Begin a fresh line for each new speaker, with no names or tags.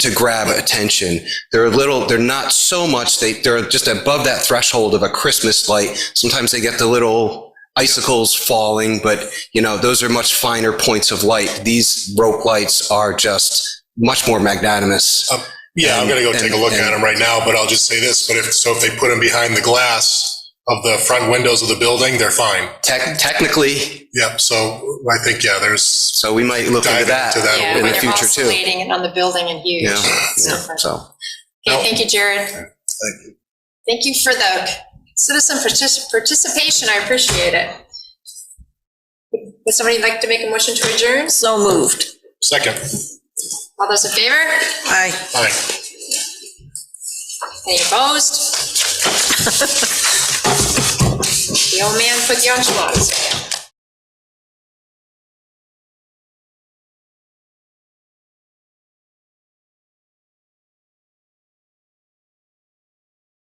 to grab attention. They're a little, they're not so much, they, they're just above that threshold of a Christmas light. Sometimes they get the little icicles falling, but you know, those are much finer points of light. These rope lights are just much more magnanimous.
Yeah, I'm
And-
gonna go take a
and-
look
and-
at them right now, but I'll just say this, but if, so if they put them behind the glass of the front windows of the building, they're fine.
Tec- technically,
Yep, so I think, yeah, there's,
so we might look into
Dive
that
into that
Yeah,
in
when
the
they're
future too.
oscillating and on the building and huge.
Yeah,
It's
yeah,
different.
so.
Okay, thank you, Jared. Thank you for the citizen partici- participation. I appreciate it. Would somebody like to make a motion to adjourn?
So moved.
second,
All those in favor?
Aye.
fine.
Any opposed? The old man put the enchiladas.